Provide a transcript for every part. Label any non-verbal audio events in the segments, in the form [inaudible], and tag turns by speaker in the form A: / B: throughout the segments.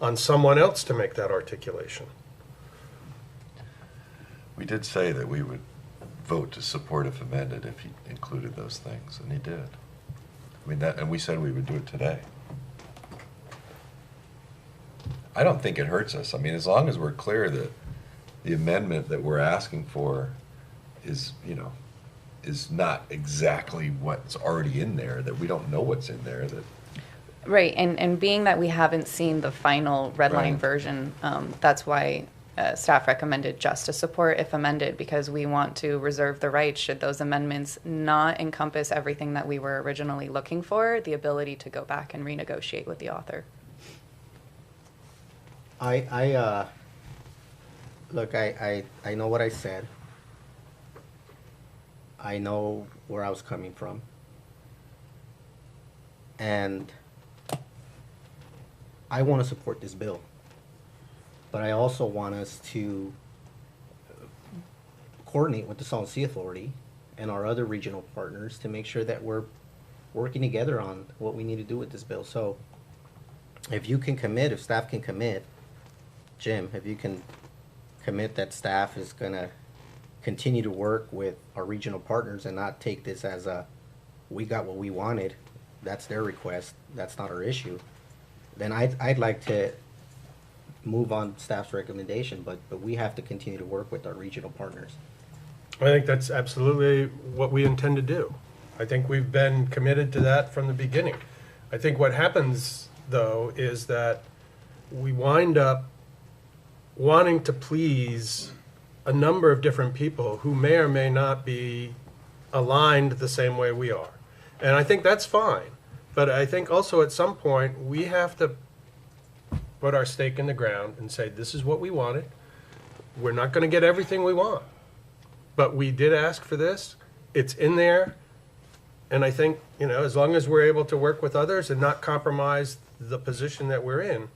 A: on someone else to make that articulation.
B: We did say that we would vote to support if amended if he included those things, and he did. I mean, that, and we said we would do it today. I don't think it hurts us. I mean, as long as we're clear that the amendment that we're asking for is, you know, is not exactly what's already in there, that we don't know what's in there, that,
C: Right, and, and being that we haven't seen the final red line
B: Right.
C: version, um, that's why uh, staff recommended just to support if amended, because we want to reserve the right, should those amendments not encompass everything that we were originally looking for, the ability to go back and renegotiate with the author.
D: I, I, uh, look, I, I, I know what I said. I know where I was coming from. And I want to support this bill. But I also want us to coordinate with the Salt Sea Authority and our other regional partners to make sure that we're working together on what we need to do with this bill. So if you can commit, if staff can commit, Jim, if you can commit that staff is gonna continue to work with our regional partners and not take this as a, we got what we wanted, that's their request, that's not our issue, then I'd, I'd like to move on staff's recommendation, but, but we have to continue to work with our regional partners.
A: I think that's absolutely what we intend to do. I think we've been committed to that from the beginning. I think what happens, though, is that we wind up wanting to please a number of different people who may or may not be aligned the same way we are. And I think that's fine. But I think also at some point, we have to put our stake in the ground and say, this is what we wanted. We're not going to get everything we want but we did ask for this. It's in there. And I think, you know, as long as we're able to work with others and not compromise the position that we're in,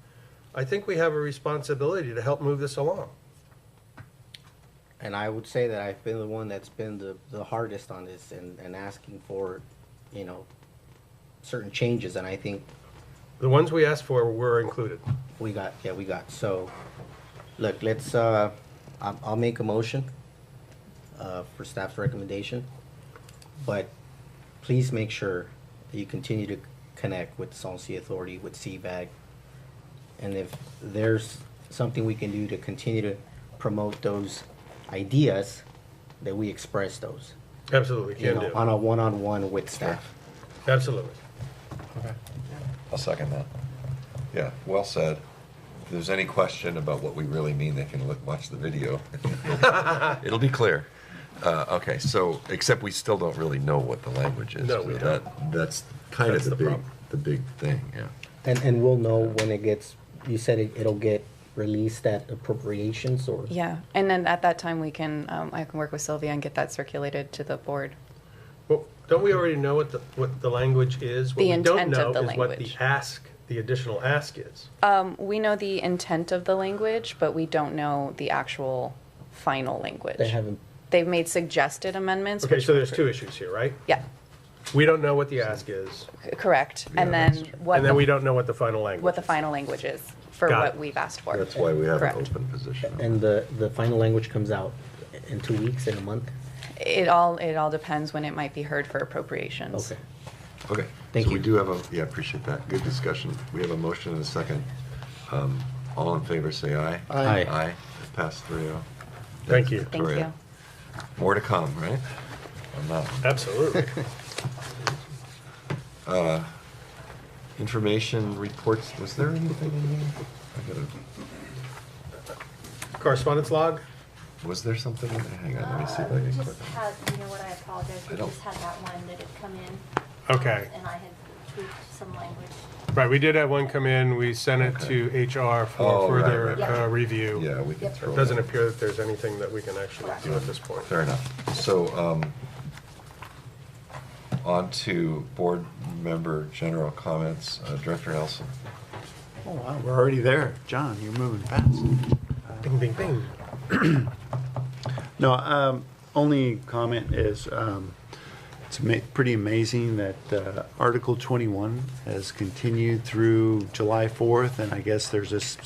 A: I think we have a responsibility to help move this along.
D: And I would say that I've been the one that's been the, the hardest on this and, and asking for, you know, certain changes, and I think
A: The ones we asked for were included.
D: We got, yeah, we got, so, look, let's, uh, I'll, I'll make a motion, uh, for staff's recommendation. But please make sure that you continue to connect with the Salton Sea Authority, with CVAG. And if there's something we can do to continue to promote those ideas, that we express those.
A: Absolutely,
D: You
A: can
D: know, on
A: do.
D: a one-on-one with staff.
A: Absolutely.
B: I'll second that. Yeah, well said. If there's any question about what we really mean, they can look, watch the video. It'll be clear. Uh, okay, so, except we still don't really know what the language is.
A: No, we
B: so that- That's kind
A: That's
B: of the
A: the
B: big,
A: problem.
B: the big thing, yeah.
D: And, and we'll know when it gets, you said it, it'll get released at appropriations or?
C: Yeah, and then at that time, we can, um, I can work with Sylvia and get that circulated to the board.
A: Well, don't we already know what the, what the language is? What
C: The
A: we don't
C: intent
A: know
C: of the
A: is what the
C: language.
A: ask, the additional ask is.
C: Um, we know the intent of the language, but we don't know the actual final language.
D: They haven't,
C: They've made suggested amendments.
A: Okay,
C: which
A: so
C: were-
A: there's two issues here, right?
C: Yeah,
A: We don't know what the ask is,
C: c- correct. And
B: Yeah,
C: then
B: that's
C: what?
A: and then
C: the-
A: we don't know what the final language is.
C: what the final language is for
A: Got
C: what
A: it.
C: we've asked for.
B: That's why we have an
C: Correct.
B: open position.
D: and the, the final language comes out in two weeks, in a month?
C: It all, it all depends when it might be heard for appropriations.
D: Okay.
B: Okay.
D: Thank
B: so we
D: you.
B: do have a, yeah, appreciate that. Good discussion. We have a motion and a second. Um, All in favor, say aye.
D: Aye. Aye.
B: Aye. It Passed three oh.
A: Thank you.
C: Thank you.
B: More to come, right? On that one.
C: [laughs]
A: Absolutely. [laughs]
B: Information reports, was there anything in there? I gotta,
A: Correspondence log?
B: was there something in there? Hang on, let me see if I can click
E: Just had, you know what, I apologize,
B: I
E: we
B: don't-
E: just had that one that had come in,
A: Okay.
E: and I had tweaked some language.
A: Right, we did have one come in, we sent it to HR for
B: Oh, right,
A: further
B: right,
E: right.
A: uh,
B: on.
A: review.
B: Yeah, we can
E: Yep.
B: throw.
A: It
B: it
A: Doesn't
B: out.
A: appear that there's anything that we can actually do at this point.
B: Fair enough. So, um, on to board member general comments, Uh, Director Nelson.
F: Oh, wow, we're already there. John, you're moving fast.
A: Bing, bing, bing.
F: No, um, only comment is, um, It's ma- pretty amazing that uh, Article 21 has continued through July 4th, and I guess there's this